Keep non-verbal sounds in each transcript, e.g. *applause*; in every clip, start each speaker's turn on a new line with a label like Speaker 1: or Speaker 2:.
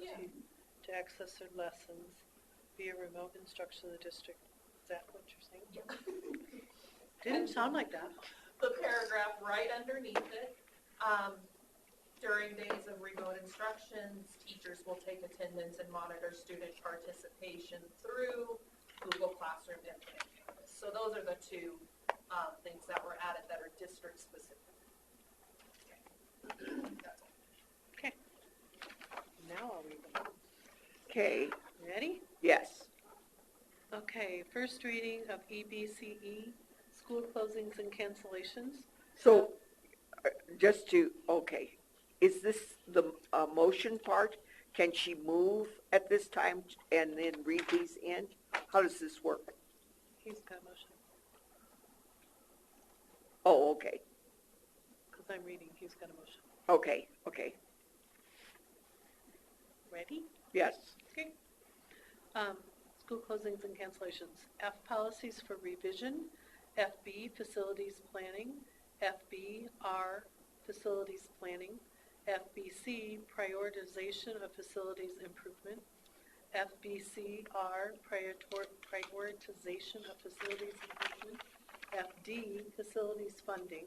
Speaker 1: student to access their lessons via remote instruction in the district. Is that what you're saying? Didn't sound like that.
Speaker 2: the paragraph right underneath it. um, During days of remote instructions, teachers will take attendance and monitor student participation through Google Classroom and Connect Campus. So those are the two um, things that were added that are district-specific. That's all.
Speaker 1: Now I'll read them.
Speaker 3: Okay,
Speaker 1: Ready?
Speaker 3: yes.
Speaker 1: Okay, first reading of E EBCE, school closings and cancellations.
Speaker 3: So, uh, just to, okay, is this the uh, motion part? Can she move at this time and then read these in? How does this work?
Speaker 1: He's got a motion,
Speaker 3: Oh, okay,
Speaker 1: because I'm reading, he's got a motion.
Speaker 3: okay, okay,
Speaker 1: Ready?
Speaker 3: yes.
Speaker 1: Okay. Um, School closings and cancellations. F, policies for revision. FB, facilities planning. FBR, facilities planning. FBC, prioritization of facilities improvement. FBCR, prioritor- prioritization of facilities improvement. FD, facilities funding.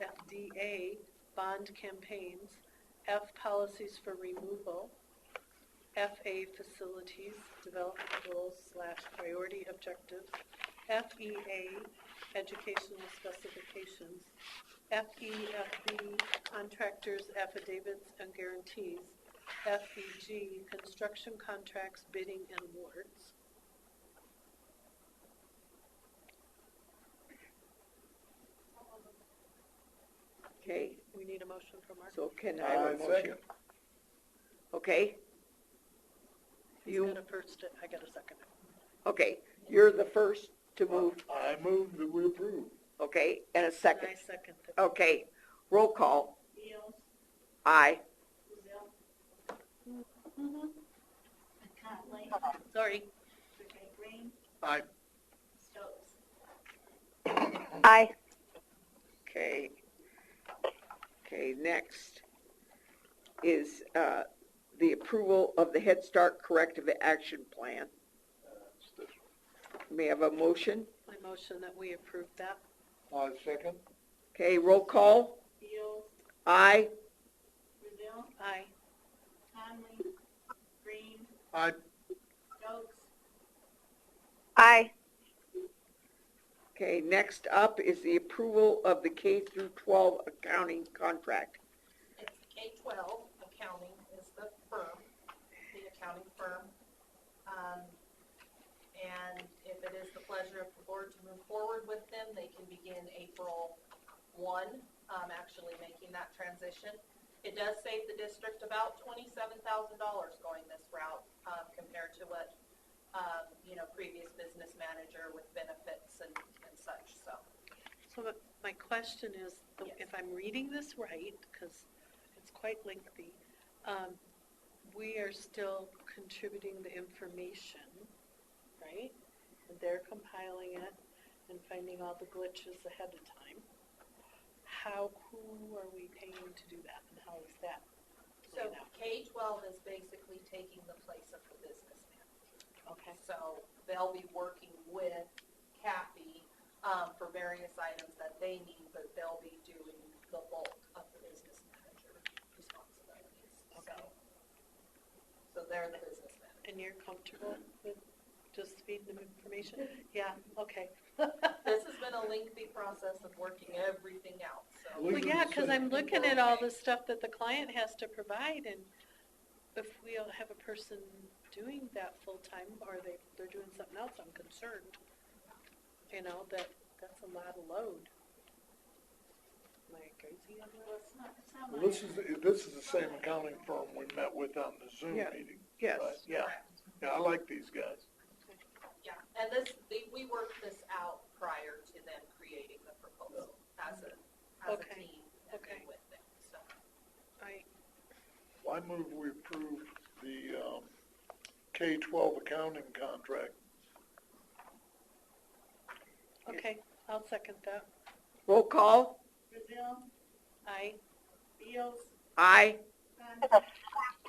Speaker 1: FDA, bond campaigns. F, policies for removal. FA facilities, development goals slash priority objectives, FEA, educational specifications, FEFB, E, contractors affidavits and guarantees, FEG, construction contracts, bidding and awards.
Speaker 3: Okay,
Speaker 1: We need a motion from Mark.
Speaker 3: so can I have a
Speaker 4: Uh,
Speaker 3: motion?
Speaker 4: second.
Speaker 3: Okay?
Speaker 1: He's
Speaker 3: You,
Speaker 1: got a first, I got a second.
Speaker 3: okay, you're the first to move,
Speaker 4: I move that we approve.
Speaker 3: okay, and a
Speaker 1: And
Speaker 3: second. Oh.
Speaker 1: I second that.
Speaker 3: Okay, roll call. Aye.
Speaker 1: Mhm.
Speaker 5: Conley,
Speaker 1: Sorry,
Speaker 5: Brigade Green,
Speaker 4: I,
Speaker 5: Stokes.
Speaker 3: Aye. Okay. Okay, next is uh, the approval of the Head Start Corrective Action Plan. May I have a motion?
Speaker 1: my motion that we approve that.
Speaker 4: I second.
Speaker 3: Okay, roll call.
Speaker 5: Fields,
Speaker 3: Aye.
Speaker 5: Brazil,
Speaker 1: Aye.
Speaker 5: Conley, Green,
Speaker 4: I,
Speaker 5: Stokes,
Speaker 3: Aye. Okay, next up is the approval of the K through 12 accounting contract.
Speaker 2: It's K-12, accounting is the firm, the accounting firm. Um, And if it is the pleasure of the board to move forward with them, they can begin April 1, um, actually making that transition. It does save the district about $27,000 going this route um, compared to what, um, you know, previous business manager with benefits and and such, so.
Speaker 1: So my- my question is, the-
Speaker 2: Yes.
Speaker 1: if I'm reading this right, because it's quite lengthy, um, we are still contributing the information, right? And they're compiling it and finding all the glitches ahead of time. How, who are we paying to do that and how is that?
Speaker 2: So
Speaker 1: playing out?
Speaker 2: K-12 is basically taking the place of the business manager.
Speaker 1: Okay,
Speaker 2: So they'll be working with Kathy um, for various items that they need, but they'll be doing the bulk of the business manager responsibilities.
Speaker 1: Okay.
Speaker 2: So, so they're the business manager.
Speaker 1: and you're comfortable with just feeding them information? Yeah, okay. *laughs*
Speaker 2: This has been a lengthy process of working everything out, so.
Speaker 4: We
Speaker 1: Well,
Speaker 4: do
Speaker 1: yeah,
Speaker 4: the
Speaker 1: because I'm
Speaker 4: same.
Speaker 1: looking at all the stuff that the client has to provide, and if we don't have a person doing that full-time, or they, they're doing something else, I'm concerned. You know, that, that's a lot of load. Am I crazy on
Speaker 5: well,
Speaker 1: that?
Speaker 5: it's not, it's not
Speaker 4: Well,
Speaker 5: my.
Speaker 4: This is, the- this is the same accounting firm we met with on the Zoom
Speaker 3: Yeah.
Speaker 4: meeting.
Speaker 3: Yes.
Speaker 4: right? Yeah, yeah, I like these guys.
Speaker 2: Yeah, and this, they- we worked this out prior to them creating the proposal as a, as a
Speaker 1: Okay.
Speaker 2: team and then
Speaker 1: Okay.
Speaker 2: with them, so.
Speaker 1: I,
Speaker 4: Well, I move we approve the, um, K twelve accounting contract.
Speaker 1: okay, I'll second that.
Speaker 3: Roll call.
Speaker 5: Brazil,
Speaker 1: I,
Speaker 5: Fields,
Speaker 3: Aye.
Speaker 5: Conley,